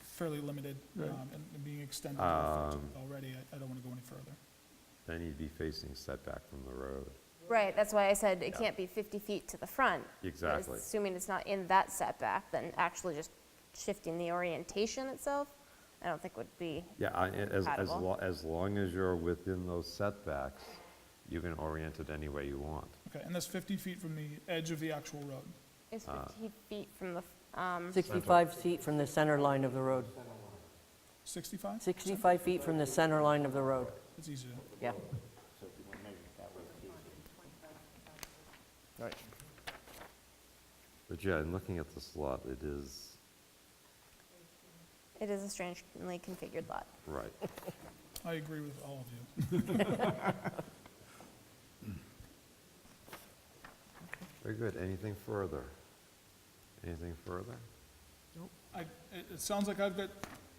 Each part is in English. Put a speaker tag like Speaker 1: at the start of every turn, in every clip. Speaker 1: fairly limited
Speaker 2: Right.
Speaker 1: um, and and being extended to affect it already. I- I don't want to go any further.
Speaker 3: Then you'd be facing setback from the road.
Speaker 4: Right, that's why I said it can't be 50 feet to the front. but it's-
Speaker 3: Exactly.
Speaker 4: Assuming it's not in that setback, then actually just shifting the orientation itself, I don't think would be,
Speaker 3: Yeah, I- as, as,
Speaker 4: Compatible.
Speaker 3: lo- as long as you're within those setbacks, you can orient it any way you want.
Speaker 1: Okay, and that's 50 feet from the edge of the actual road.
Speaker 4: it's
Speaker 3: Uh.
Speaker 4: 50 feet from the, f- um,
Speaker 5: 65 feet from the center line of the road.
Speaker 1: 65?
Speaker 5: 65 feet from the center line of the road.
Speaker 1: It's easier.
Speaker 5: Yeah.
Speaker 2: All right.
Speaker 3: But yeah, in looking at this lot, it is,
Speaker 4: it is a strangely configured lot.
Speaker 3: right.
Speaker 1: I agree with all of you.
Speaker 3: Very good. Anything further? Anything further?
Speaker 1: I, it, it sounds like I've got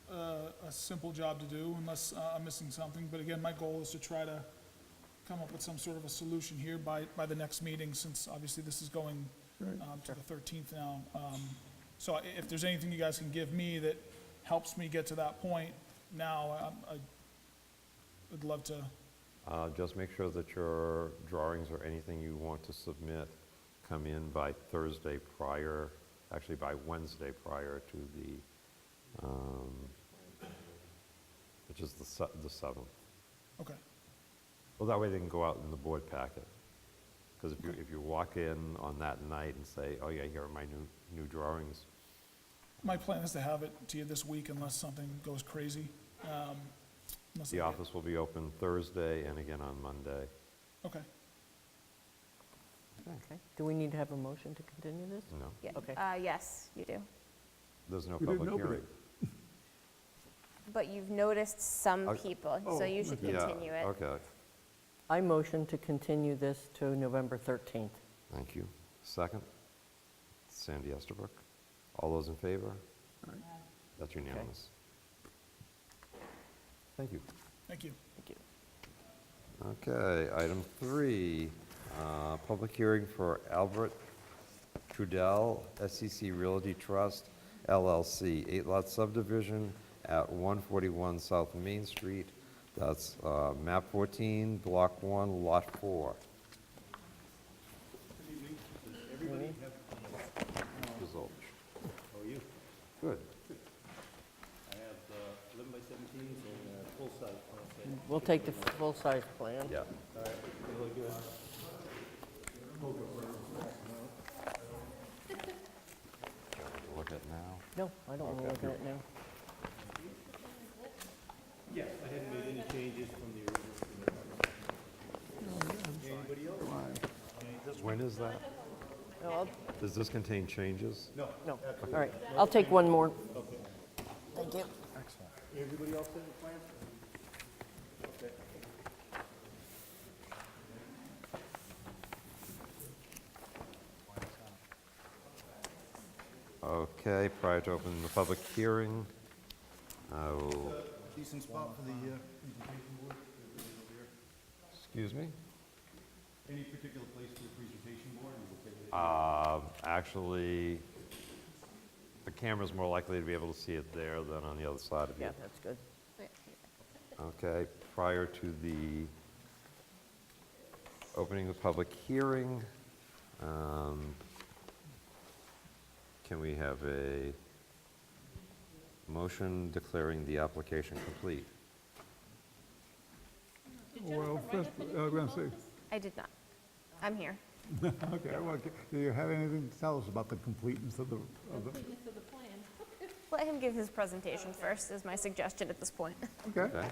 Speaker 1: uh, a simple job to do unless uh, I'm missing something. But again, my goal is to try to come up with some sort of a solution here by, by the next meeting, since obviously this is going um, to the 13th now. Um, So i- if there's anything you guys can give me that helps me get to that point now, I- I would love to,
Speaker 3: Uh, Just make sure that your drawings or anything you want to submit come in by Thursday prior, actually by Wednesday prior to the, um, which is the se- the 7th.
Speaker 1: okay,
Speaker 3: Well, that way they can go out in the board packet. Because if you, if you walk in on that night and say, oh yeah, here are my new, new drawings,
Speaker 1: my plan is to have it to you this week unless something goes crazy. Um, unless
Speaker 3: the
Speaker 1: I get-
Speaker 3: office will be open Thursday and again on Monday.
Speaker 1: Okay.
Speaker 5: Okay. Do we need to have a motion to continue this?
Speaker 3: No,
Speaker 4: Yeah.
Speaker 5: Okay.
Speaker 4: Uh, Yes, you do.
Speaker 3: there's no
Speaker 2: We didn't
Speaker 3: public
Speaker 2: open
Speaker 3: hearing.
Speaker 2: it.
Speaker 4: But you've noticed some
Speaker 3: I-
Speaker 4: people, so you should
Speaker 3: Yeah,
Speaker 4: continue it.
Speaker 3: Okay,
Speaker 5: I motion to continue this to November 13th.
Speaker 3: thank you. Second, Sandy Estabrook. All those in favor? That's unanimous. Thank you.
Speaker 1: Thank you.
Speaker 5: Thank you.
Speaker 3: Okay, item three, uh, public hearing for Albert Trudell, SEC Realty Trust LLC, eight-lot subdivision at 141 South Main Street. That's uh, map 14, block 1, lot 4. Results.
Speaker 6: How are you?
Speaker 3: Good.
Speaker 6: I have uh, 11 by 17s and uh, full size. plan set.
Speaker 5: We'll take the full-size plan.
Speaker 3: Yeah. Look at now.
Speaker 5: No, I don't want to look at it now.
Speaker 6: Yeah, I hadn't made any changes from the original. Anybody else?
Speaker 3: When is that?
Speaker 5: No, I'll-
Speaker 3: Does this contain changes? No.
Speaker 5: No, all right. I'll take one more. Thank you.
Speaker 6: Everybody else in the plan? Okay.
Speaker 3: Okay, prior to opening the public hearing, I will,
Speaker 6: Decent spot for the, uh,
Speaker 3: excuse me?
Speaker 6: any particular place for the presentation board? Are you okay with it?
Speaker 3: Um, Actually, the camera's more likely to be able to see it there than on the other side of you.
Speaker 5: Yeah, that's good.
Speaker 3: Okay, prior to the opening of the public hearing, um, can we have a motion declaring the application complete?
Speaker 2: Well, first, I was going to say,
Speaker 4: I did not. I'm here.
Speaker 2: okay, well, c- do you have anything to tell us about the completeness of the, of the,
Speaker 4: Let him give his presentation first, is my suggestion at this point.
Speaker 2: okay?
Speaker 3: Okay?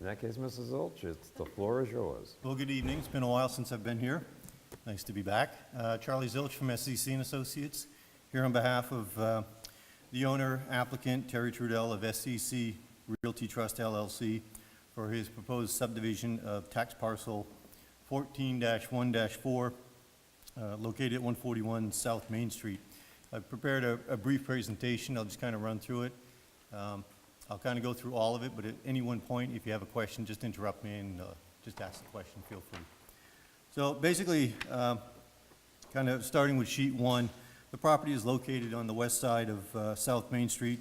Speaker 3: In that case, Mrs. Zulch, it's, the floor is yours.
Speaker 6: Well, good evening. It's been a while since I've been here. Nice to be back. Uh, Charlie Zilch from SCC and Associates, here on behalf of uh, the owner applicant Terry Trudell of SCC Realty Trust LLC for his proposed subdivision of tax parcel 14-1-4 uh, located at 141 South Main Street. I've prepared a a brief presentation. I'll just kind of run through it. Um, I'll kind of go through all of it, but at any one point, if you have a question, just interrupt me and uh, just ask the question, feel free. So basically, um, kind of starting with sheet one, the property is located on the west side of uh, South Main Street,